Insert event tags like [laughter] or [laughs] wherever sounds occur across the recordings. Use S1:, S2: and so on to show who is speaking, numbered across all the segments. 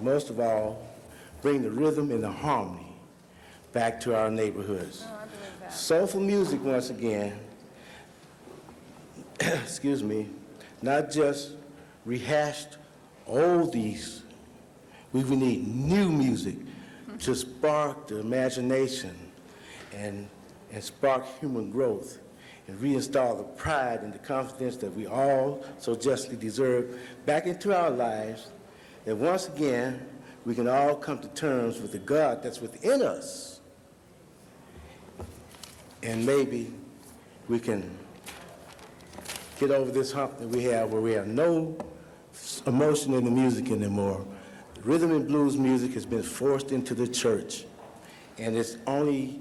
S1: most of all, bring the rhythm and the harmony back to our neighborhoods. Soulful music, once again, [clears throat] excuse me, not just rehashed oldies. We would need new music to spark the imagination and, and spark human growth and reinstall the pride and the confidence that we all so justly deserve back into our lives. That once again, we can all come to terms with the God that's within us. And maybe we can get over this hump that we have where we have no s- emotion in the music anymore. Rhythm and blues music has been forced into the church, and it's only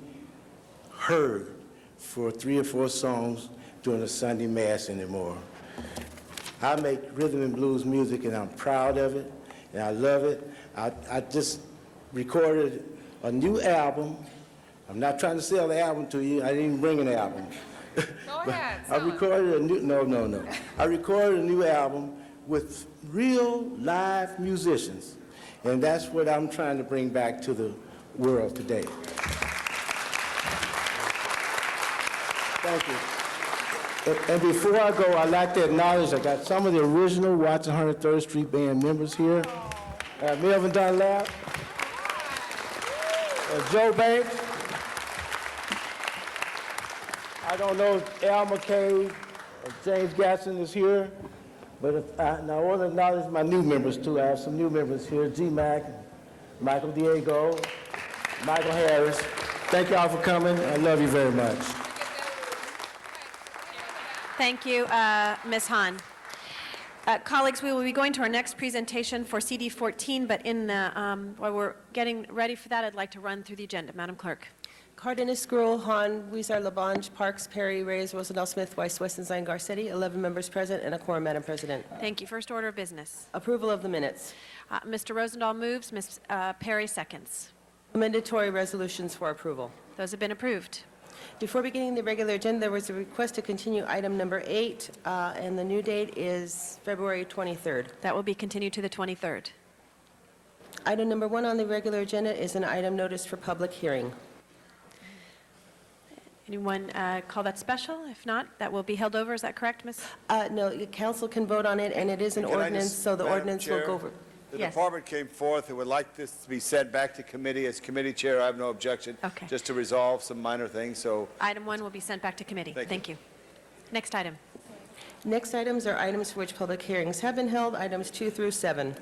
S1: heard for three or four songs during a Sunday mass anymore. I make rhythm and blues music, and I'm proud of it, and I love it. I, I just recorded a new album. I'm not trying to sell the album to you. I didn't even bring an album.
S2: Go ahead,
S1: [laughs] I
S2: sell it.
S1: recorded a new, no, no, no. I recorded a new album with real live musicians, and that's what I'm trying to bring back to the world today. Thank you. And- And before I go, I'd like to acknowledge, I got some of the original Watson 103rd Street Band members here. Uh, Melvin Dunlap. Uh, Joe Banks. I don't know if Al McKay or James Gatson is here, but if I, and I want to acknowledge my new members too. I have some new members here, G Mac, Michael Diego, Michael Harris. Thank y'all for coming. I love you very much.
S3: Thank you, uh, Ms. Hahn. Uh, Colleagues, we will be going to our next presentation for CD 14, but in the, um, while we're getting ready for that, I'd like to run through the agenda. Madam Clerk.
S4: Cardenas, Gruel, Han, Weezer, Labange, Parks, Perry, Reyes, Rosendahl, Smith, Weiss, Westenstein, Garcetti, 11 members present and a quorum, Madam President.
S3: Thank you. First order of business.
S4: Approval of the minutes.
S3: Uh, Mr. Rosendahl moves, Ms. uh, Perry seconds.
S4: Amendatory resolutions for approval.
S3: Those have been approved.
S4: Before beginning the regular agenda, there was a request to continue item number eight, uh, and the new date is February 23rd.
S3: That will be continued to the 23rd.
S4: Item number one on the regular agenda is an item notice for public hearing.
S3: Anyone uh, call that special? If not, that will be held over. Is that correct, Ms.?
S4: Uh, No, the council can vote on it, and it is an
S5: Can I
S4: ordinance,
S5: just-
S4: so the
S5: Madam
S4: ordinance will
S5: Chair,
S4: go over.
S5: The
S3: Yes.
S5: department came forth and would like this to be sent back to committee. As committee chair, I have no objection.
S3: Okay.
S5: Just to resolve some minor things, so
S3: Item one will be sent back to committee.
S5: Thank you.
S3: Thank you. Next item.
S4: Next items are items for which public hearings have been held, items two through seven.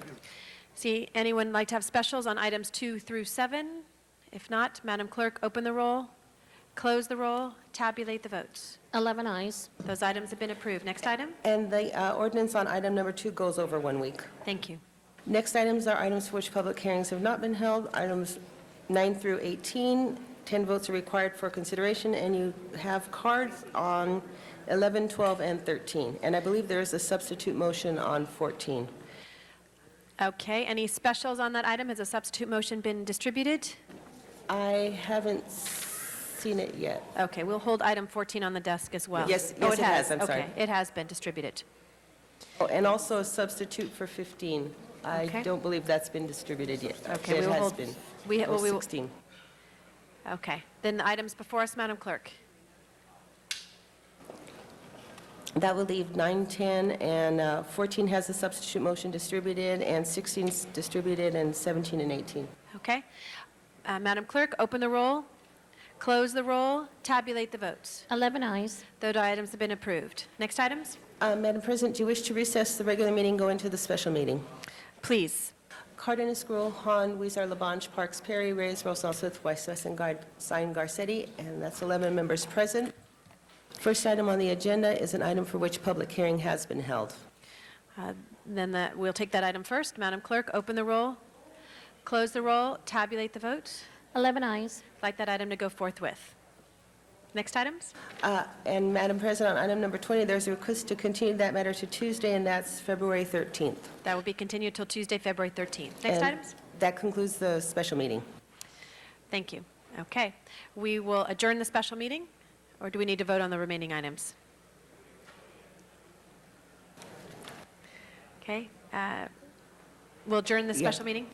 S3: See, anyone like to have specials on items two through seven? If not, Madam Clerk, open the roll, close the roll, tabulate the votes.
S6: 11 eyes.
S3: Those items have been approved. Next item?
S4: And the uh, ordinance on item number two goes over one week.
S3: Thank you.
S4: Next items are items for which public hearings have not been held, items nine through 18. 10 votes are required for consideration, and you have cards on 11, 12, and 13. And I believe there is a substitute motion on 14.
S3: Okay, any specials on that item? Has a substitute motion been distributed?
S4: I haven't seen it yet.
S3: Okay, we'll hold item 14 on the desk as well.
S4: Yes-
S3: Oh,
S4: yes, it has. I'm sorry.
S3: Okay, it has been distributed.
S4: Oh, And also a substitute for 15. I
S3: Okay.
S4: don't believe that's been distributed yet.
S3: Okay, we
S4: It
S3: will
S4: has
S3: hold-
S4: been. Oh,
S3: we-
S4: Or
S3: well, we will-
S4: 16.
S3: Okay, then the items before us, Madam Clerk.
S4: That would leave 9, 10, and uh, 14 has a substitute motion distributed, and 16 's distributed, and 17 and 18.
S3: Okay? Uh, Madam Clerk, open the roll, close the roll, tabulate the votes.
S6: 11 eyes.
S3: Those items have been approved. Next items?
S4: Uh, Madam President, do you wish to recess the regular meeting, go into the special meeting?
S3: Please.
S4: Cardenas, Gruel, Han, Weezer, Labange, Parks, Perry, Reyes, Rosendahl, Smith, Weiss, Wessengard, Sine, Garcetti, and that's 11 members present. First item on the agenda is an item for which public hearing has been held.
S3: Uh, Then the- we'll take that item first. Madam Clerk, open the roll, close the roll, tabulate the vote.
S6: 11 eyes.
S3: Like that item to go forthwith. Next items?
S4: Uh, And Madam President, on item number 20, there's a request to continue that matter to Tuesday, and that's February 13th.
S3: That will be continued till Tuesday, February 13th. Next
S4: And
S3: items?
S4: That concludes the special meeting.
S3: Thank you. Okay. We will adjourn the special meeting, or do we need to vote on the remaining items? Okay. uh, We'll adjourn the
S4: Yeah.
S3: special meeting?